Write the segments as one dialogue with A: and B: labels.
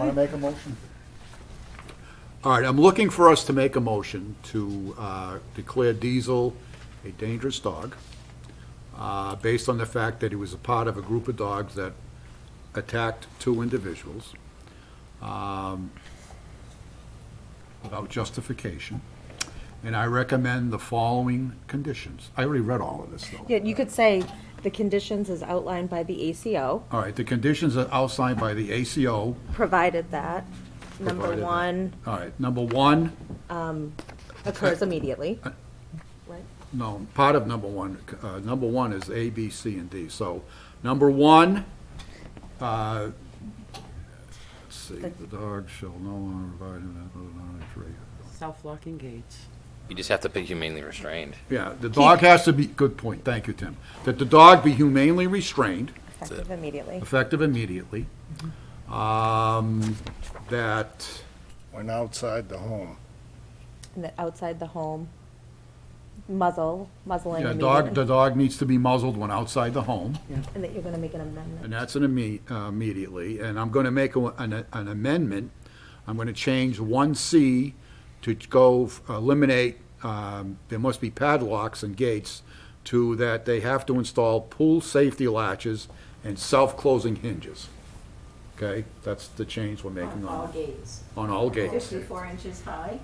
A: Want to make a motion?
B: All right, I'm looking for us to make a motion to uh, declare Diesel a dangerous dog, uh, based on the fact that he was a part of a group of dogs that attacked two individuals um, without justification. And I recommend the following conditions. I already read all of this, though.
C: Yeah, you could say the conditions as outlined by the ACO,
B: All right, the conditions are outlined by the ACO.
C: provided that number
B: provided-
C: one
B: All right, number one,
C: occurs immediately. Right?
B: No, part of number one, uh, number one is A, B, C, and D. So, number one, uh, let's see, the dog shall no longer provide him with a non-entry.
D: Self-locking gates.
E: You just have to be humanely restrained.
B: Yeah, the dog has to be, good point, thank you, Tim. That the dog be humanely restrained,
C: Effective immediately.
B: effective immediately. Um, that,
A: When outside the home.
C: And that outside the home, muzzle, muzzling
B: yeah, dog, the
C: immediately.
B: dog needs to be muzzled when outside the home.
C: And that you're gonna make an amendment.
B: And that's an imme- uh, immediately, and I'm going to make a- an an amendment. I'm going to change 1C to go f- eliminate, um, there must be padlocks and gates, to that they have to install pool safety latches and self-closing hinges. Okay? That's the change we're making
F: On all
B: on,
F: gates,
B: on all gates,
F: fifty-four inches high,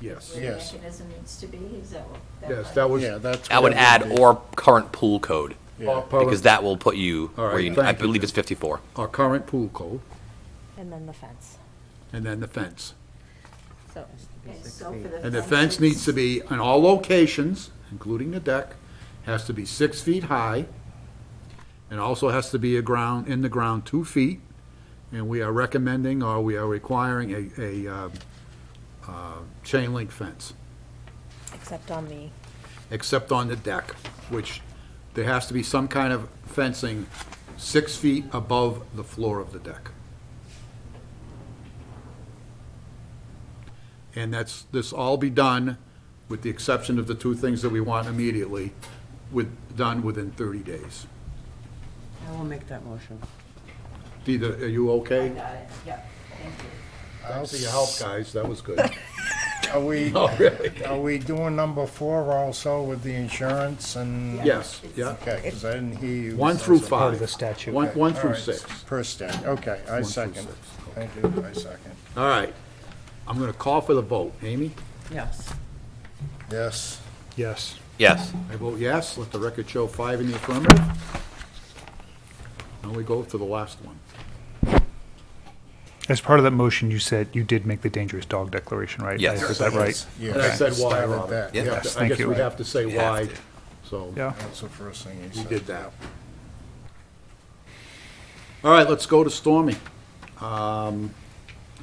B: yes.
F: where the
A: Yes.
F: mechanism needs to be, is that what?
B: Yes,
F: what-
B: that was,
A: Yeah, that's.
E: I would
A: where it
E: add
A: be.
E: or current pool code,
A: Yeah.
E: because that will put you
B: All right,
E: where you, I
B: thank you,
E: believe
B: Jim.
E: it's 54.
B: our current pool code,
C: And then the fence.
B: and then the fence.
C: So,
F: Okay, so for
B: And the fence needs to be, in all locations, including the deck, has to be six feet high, and also has to be a ground, in the ground, two feet. And we are recommending, or we are requiring a, a, uh, uh, chain link fence,
C: except on the,
B: except on the deck, which there has to be some kind of fencing six feet above the floor of the deck. And that's, this all be done, with the exception of the two things that we want immediately, with, done within 30 days.
D: I will make that motion.
B: Dee, are you okay?
F: Got it, yep, thank you.
B: Thanks for your help, guys, that was good.
A: Are we,
B: Oh, really?
A: are we doing number four also with the insurance and?
B: Yes, yeah,
A: Okay, because I didn't hear you.
B: one through
A: All
B: five.
G: of the statute.
B: One, one through
A: right,
B: six.
A: Per stat, okay, I
B: through
A: second.
B: six,
A: I do, I second.
B: All right, I'm gonna call for the vote. Amy?
D: Yes.
A: Yes.
G: Yes.
E: Yes.
B: I vote yes, let the record show five in the affirmative. Now we go to the last one.
G: As part of that motion, you said you did make the dangerous dog declaration, right?
E: Yes.
G: I heard that right?
A: Yes.
B: And I said why,
A: Started
B: Robert.
A: that.
B: We have
G: Yes,
B: to- I
G: thank
B: guess
G: you.
B: we have to say
E: You have
B: why,
E: to.
B: so
G: Yeah.
A: That's the first thing he
B: we
A: said.
B: did that. All right, let's go to Stormy. Um,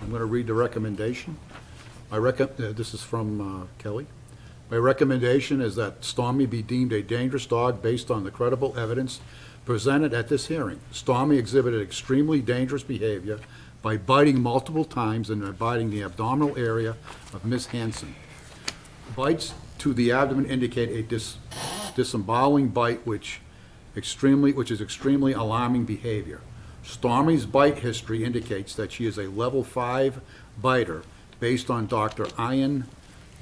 B: I'm going to read the recommendation. My rec, uh, this is from uh, Kelly. My recommendation is that Stormy be deemed a dangerous dog based on the credible evidence presented at this hearing. Stormy exhibited extremely dangerous behavior by biting multiple times and biting the abdominal area of Miss Hanson. Bites to the abdomen indicate a dis- disemboweling bite which extremely, which is extremely alarming behavior. Stormy's bite history indicates that she is a level five biter based on Dr. Ian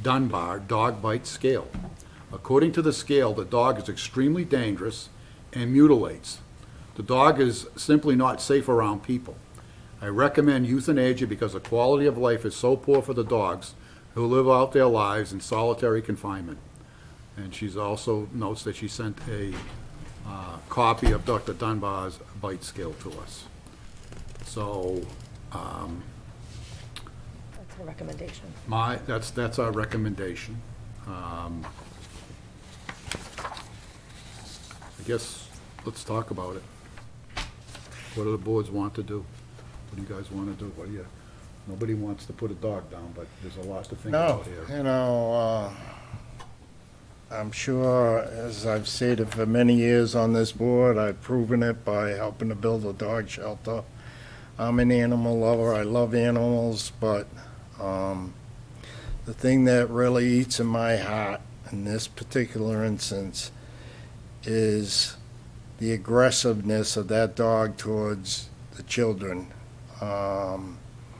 B: Dunbar dog bite scale. According to the scale, the dog is extremely dangerous and mutilates. The dog is simply not safe around people. I recommend euthanasia because the quality of life is so poor for the dogs who live out their lives in solitary confinement. And she's also notes that she sent a uh, copy of Dr. Dunbar's bite scale to us. So
C: that's a recommendation.
B: my, that's, that's our recommendation. Um, I guess, let's talk about it. What do the boards want to do? What do you guys want to do? What do you, nobody wants to put a dog down, but there's a lot to think
A: No,
B: about here.
A: you know, uh, I'm sure, as I've stated for many years on this board, I've proven it by helping to build a dog shelter. I'm an animal lover, I love animals, but um, the thing that really eats in my heart in this particular instance is the aggressiveness of that dog towards the children. Um,